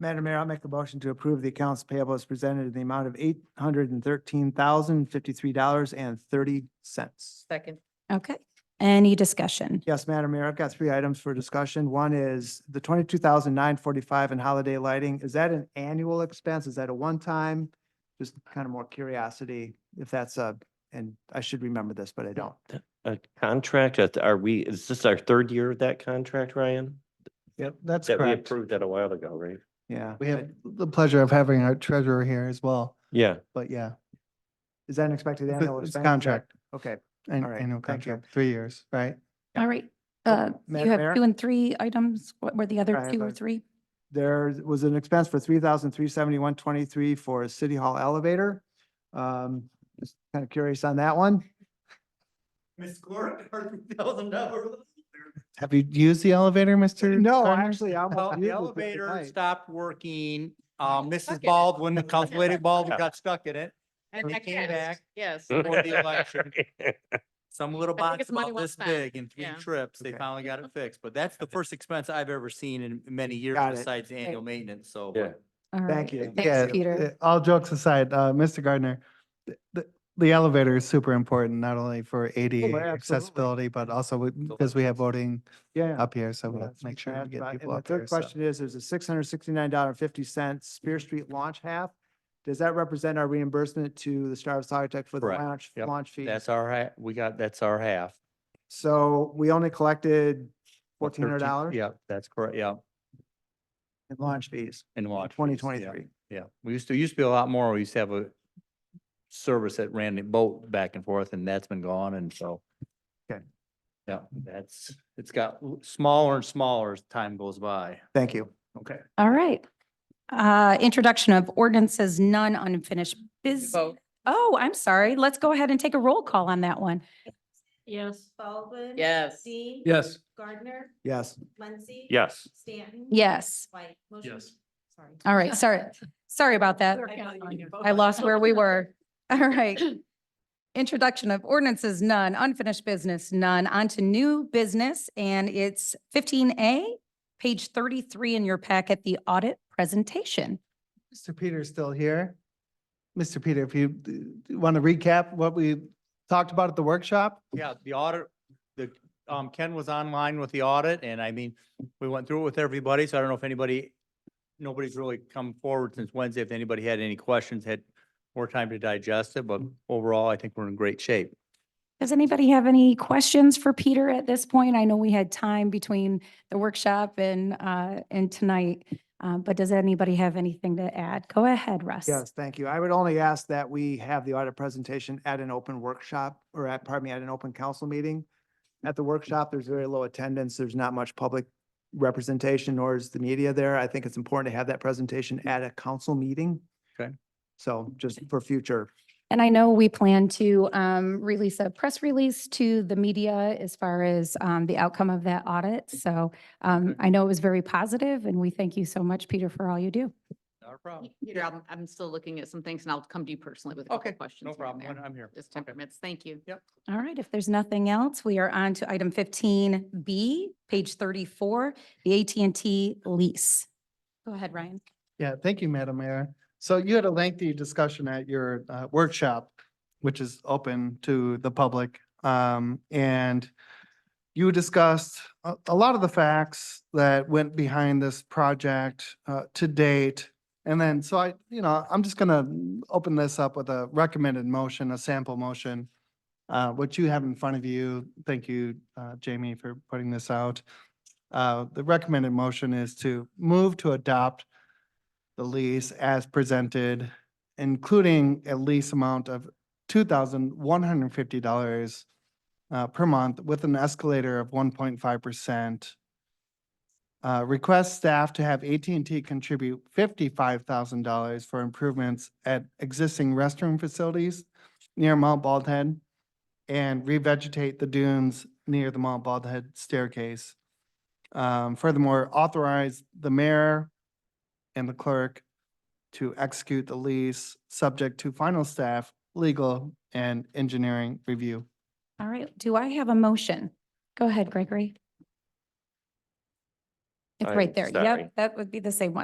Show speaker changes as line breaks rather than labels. Madam Mayor, I'll make a motion to approve the accounts payable as presented in the amount of eight hundred and thirteen thousand, fifty-three dollars and thirty cents.
Second.
Okay, any discussion?
Yes, Madam Mayor, I've got three items for discussion. One is the twenty-two thousand nine forty-five in holiday lighting. Is that an annual expense? Is that a one-time? Just kind of more curiosity if that's a, and I should remember this, but I don't.
A contract, uh, are we, is this our third year of that contract, Ryan?
Yep, that's
That we
correct.
approved that a while ago, right?
Yeah.
We have the pleasure of having our treasurer here as well,
Yeah,
but yeah,
Is that an expected
it's
annual
a- it's
expense?
a contract,
Okay.
an
All right,
annual
thank you.
contract, three years, right?
All right,
Oh,
uh, you
Madam Mayor?
have two and three items. What were the
I
other
have
two
a-
or three?
There was an expense for three thousand three seventy-one twenty-three for a city hall elevator. Um, just kind of curious on that one.
Miss Cora, three thousand dollars.
Have you used the elevator, Mr.?
No,
Garner?
actually, I almost used it
The
the
elevator
night.
stopped working.
got
Um,
stuck
Mrs.
in it.
Baldwin, the council lady Baldwin got stuck in it
And
We
I
came
guess,
back.
Yes.
for the election. Some little
I think
box
it's money
about
well
this
spent.
big in three
Yeah.
trips. They
Okay.
finally got it fixed, but that's the first expense I've ever seen in many years
Got it.
besides annual maintenance, so.
Yeah.
All
Thank
right,
you.
Yeah,
Thanks, Peter.
uh, All jokes aside, uh, Mr. Gardner, th- th- the elevator is super important, not only for ADA
absolutely.
accessibility, but also because we have voting
Yeah.
up here, so we'll
That's
make sure
what
we get
I asked about.
people
And the
up here.
third question is, there's a six hundred sixty-nine dollar fifty cent Spear Street launch half. Does that represent our reimbursement to the Star of Sagatuck for the
Correct.
launch,
Yep.
launch fee?
That's our, ha- we got, that's our half.
So we only collected
What,
fourteen hundred
13
dollars
Yeah, that's correct, yeah,
in launch fees
in
in
Watch.
twenty twenty-three.
Yeah, we used to, used to be a lot more. We used to have a service that ran the boat back and forth and that's been gone and so.
Okay.
Yeah, that's, it's got l- smaller and smaller as time goes by.
Thank you.
Okay.
All right. Uh, introduction of ordinances, none unfinished business.
Vote.
Oh, I'm sorry. Let's go ahead and take a roll call on that one.
Yes. Baldwin.
Yes.
Dean.
Yes.
Gardner,
Yes.
Muncy.
yes.
Stanton.
Yes.
White. Motion-
Yes.
Sorry.
All right, sorry. Sorry about that.
I thought you did both.
I lost where we were. All right. Introduction of ordinances, none. Unfinished business, none. On to new business, and it's fifteen A, page thirty-three in your packet, the audit presentation.
Mr. Peter's still here. Mr. Peter, if you want to recap what we talked about at the workshop?
Yeah, the audit, the, um, Ken was online with the audit and I mean, we went through it with everybody, so I don't know if anybody, nobody's really come forward since Wednesday. If anybody had any questions, had more time to digest it, but overall, I think we're in great shape.
Does anybody have any questions for Peter at this point? I know we had time between the workshop and, uh, and tonight. Uh, but does anybody have anything to add? Go ahead, Russ.
Yes, thank you. I would only ask that we have the audit presentation at an open workshop or at, pardon me, at an open council meeting. At the workshop, there's very low attendance. There's not much public representation nor is the media there. I think it's important to have that presentation at a council meeting.
Okay.
So just for future,
And I know we plan to um, release a press release to the media as far as um, the outcome of that audit. So um, I know it was very positive, and we thank you so much, Peter, for all you do.
Not a problem.
Peter, I'm, I'm still looking at some things and I'll come to you personally with a couple
Okay,
questions.
No
here and
problem. when
there.
I'm here.
Just
Okay.
temperaments. Thank you.
All right, if there's nothing else, we are on to item 15B, page 34, the at and T lease. Go ahead, Ryan.
Yeah, thank you, Madam Mayor. So you had a lengthy discussion at your uh, workshop, which is open to the public. Um, and you discussed a, a lot of the facts that went behind this project, uh, to date. And then, so I, you know, I'm just gonna open this up with a recommended motion, a sample motion. Uh, what you have in front of you, thank you, uh, Jamie, for putting this out. Uh, the recommended motion is to move to adopt the lease as presented, including a lease amount of two thousand one hundred and fifty dollars uh, per month with an escalator of one point five percent. Uh, request staff to have AT&T contribute fifty-five thousand dollars for improvements at existing restroom facilities near Mount Baldhead and revegetate the dunes near the Mount Baldhead staircase. Um, furthermore, authorize the mayor and the clerk to execute the lease, subject to final staff, legal, and engineering review.
All right, do I have a motion? Go ahead, Gregory. It's
I'm
right there.
sorry.
Yep, that would be the same one.